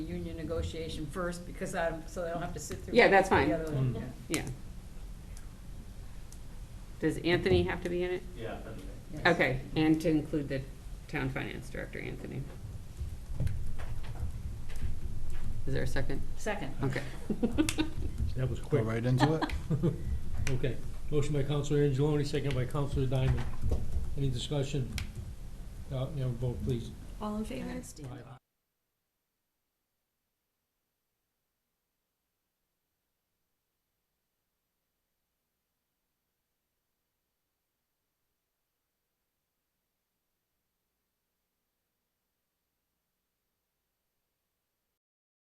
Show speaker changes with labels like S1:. S1: negotiation first, because I'm, so I don't have to sit through.
S2: Yeah, that's
S1: the
S2: fine.
S1: other one.
S3: Mm.
S1: Yeah.
S2: yeah. Does Anthony have to be in it?
S4: Yeah, if anything.
S1: Yes.
S2: Okay, and to include the town finance director, Anthony. Is there a second?
S1: Second.
S2: Okay.
S3: That was quick.
S5: Go right into it.
S3: Okay. Motion by Counselor Angeloni, second by Counselor Diamond. Any discussion? Uh, you know, vote please.
S6: All in favor?
S3: Aye.